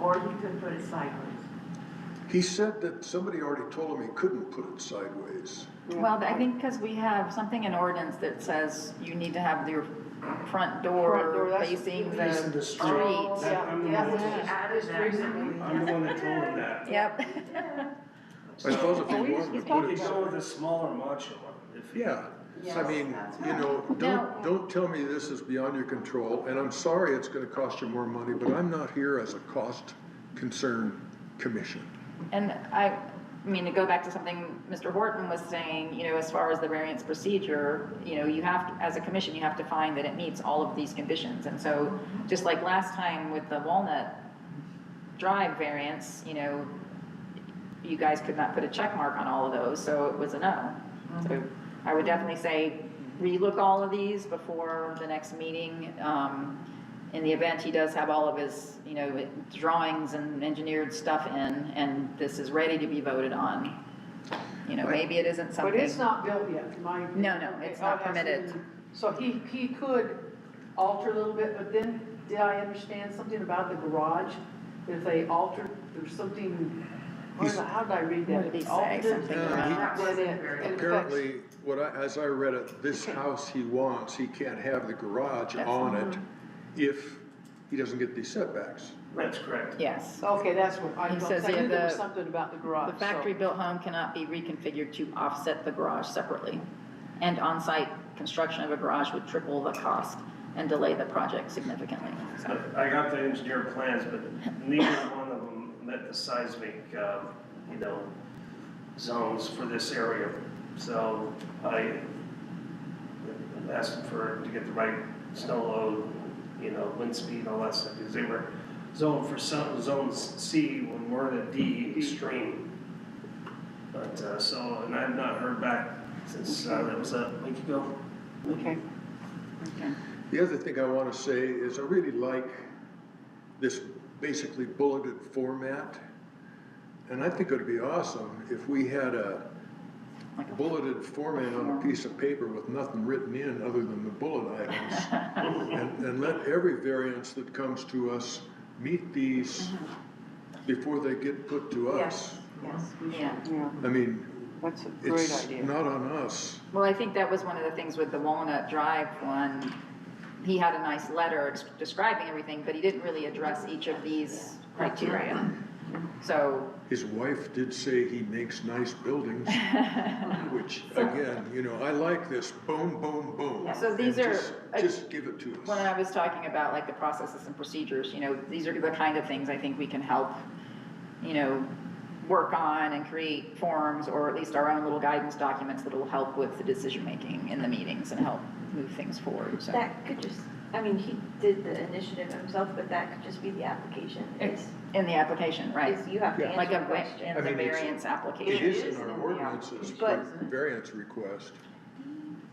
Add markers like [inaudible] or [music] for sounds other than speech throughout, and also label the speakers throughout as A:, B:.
A: or he could put it sideways.
B: He said that somebody already told him he couldn't put it sideways.
C: Well, I think because we have something in ordinance that says you need to have your front
A: Front door,
C: door
A: that's-
C: facing
D: Facing
C: the
D: the street.
A: Oh,
C: street.
A: Yeah,
D: I'm-
A: yeah, we
D: Yeah.
A: added that, didn't we?
D: I'm the one that told
A: [laughs]
D: him that.
C: Yep.
B: I suppose if he
E: Oh, we-
B: wanted
E: we
B: to
E: talked
B: put
D: You
B: it,
D: could go with a smaller module, if you.
B: yeah. I
A: Yes,
B: mean,
A: that's
B: you know,
C: Now-
B: don't, don't tell me this is beyond your control, and I'm sorry it's gonna cost you more money, but I'm not here as a cost concern commission.
C: And I, I mean, to go back to something Mr. Horton was saying, you know, as far as the variance procedure, you know, you have, to- as a commission, you have to find that it meets all of these conditions. And so, just like last time with the Walnut Drive variance, you know, you guys could not put a check mark on all of those, so it was a no. So I would definitely say, relook all of these before the next meeting. Um, in the event he does have all of his, you know, drawings and engineered stuff in, and this is ready to be voted on. You know, maybe it isn't
E: But it's
C: something,
E: not built yet, in my.
C: No, no, it's not
E: Okay, oh, that's-
C: permitted.
E: So he, he could alter a little bit, but then, did I understand something about the garage? If they altered, there's something, where
B: He's-
E: the- how did I read that?
C: What did he say?
E: Altered?
C: Something
B: Yeah, around- he-
E: That was it. It affects-
B: Apparently, what I, as I read it, this house he wants, he can't have the garage
C: That's-
B: on it if he doesn't get these setbacks.
D: That's correct.
C: yes.
E: Okay, that's what, I
C: He
E: was
C: says
E: I knew
C: that
E: there was
C: the-
E: something about the garage.
C: The
E: so-
C: factory-built home cannot be reconfigured to offset the garage separately. And on-site construction of a garage would triple the cost and delay the project significantly. So,
D: But I got the engineer plans, but neither one of them met the seismic, um, you know, zones for this area. So I asked them for, to get the right snow load, you know, wind speed, all that stuff, because they were zoned for some, zones C when we're in a D extreme. But, uh, so, and I've not heard back since, uh, that was a week ago.
E: Okay.
C: okay.
B: The other thing I want to say is I really like this basically bulleted format. And I think it would be awesome if we had a
C: Like a-
B: bulleted format on a piece of paper with nothing written in other than the bullet items. And, and let every variance that comes to us meet these before they get put to us.
A: Yes.
C: Yeah.
E: Yeah,
B: I mean,
E: that's a
B: it's not on us.
C: Well, I think that was one of the things with the Walnut Drive one. He had a nice letter ex- describing everything, but he didn't really address each of these criteria. So,
B: His wife did say he makes nice
C: [laughs]
B: buildings, which, again, you know, I like this boom, boom, boom.
C: Yeah, so these
B: And
C: are- uh,
B: just- Just give it to
C: when
B: us.
C: I was talking about like the processes and procedures, you know, these are the kind of things I think we can help, you know, work on and create forms or at least our own little guidance documents that'll help with the decision-making in the meetings and help move things forward, so.
F: That could just, I mean, he did the initiative himself, but that could just be the application.
C: It's in the application, right?
F: Is you have to
B: Yeah.
C: Like a,
F: answer a question.
C: in the
B: I mean, it's-
C: variance application.
B: It is
A: is
B: in our
A: in the
B: ordinances, for
F: application.
A: But-
B: variance request.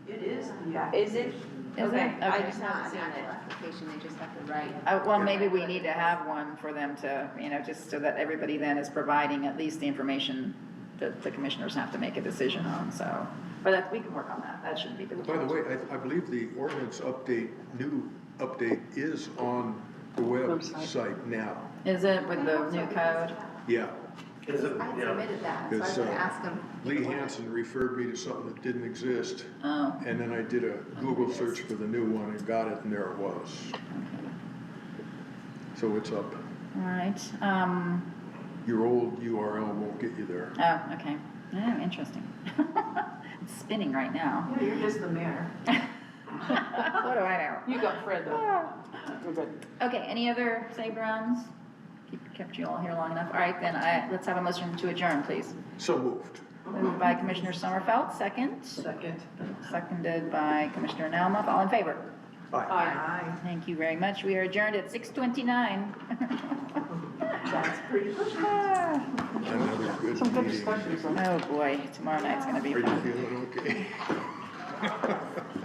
A: It is, yeah.
F: Is it?
C: it?
F: Okay, I
C: Okay.
F: just haven't
G: not an
F: seen
G: actual
F: it.
G: application, they just have to write.
C: Uh, well, maybe we need to have one for them to, you know, just so that everybody then is providing at least the information that the commissioners have to make a decision on, so. But that, we can work on that, that shouldn't be difficult.
B: By the way, I, I believe the ordinance update, new update is on the website now.
C: Is it with the new code?
B: Yeah,
D: Is it,
G: I had
D: yeah.
G: submitted that, so I was
B: It's,
G: gonna
B: uh,
G: ask them.
B: Lee Hansen referred me to something that didn't exist,
C: Oh,
B: and then I did a Google search for the new one and got it, and there it was. So it's up.
C: all right, um,
B: Your old URL won't get you there.
C: oh, okay, oh, interesting. [laughs] It's spinning right now. [laughs]
A: You're just the mayor.
C: What do I
E: You got Fred though,
C: know?
E: You're good.
C: Okay, any other save rounds? Keep- Kept you all here long enough, all right, then I, let's have a motion to adjourn, please.
B: So moved.
C: Moved by Commissioner Sommerfeld, second.
A: Second.
C: Seconded by Commissioner Nalmuth. All in favor?
E: Aye.
A: Aye.
C: Thank you very much. We are adjourned at [laughs] 6:29.
A: That's pretty good.
B: Another good
E: Some good
B: meeting.
E: discussions on
C: Oh, boy, tomorrow night's gonna
B: Are
C: be
B: you
C: fun.
B: feeling okay?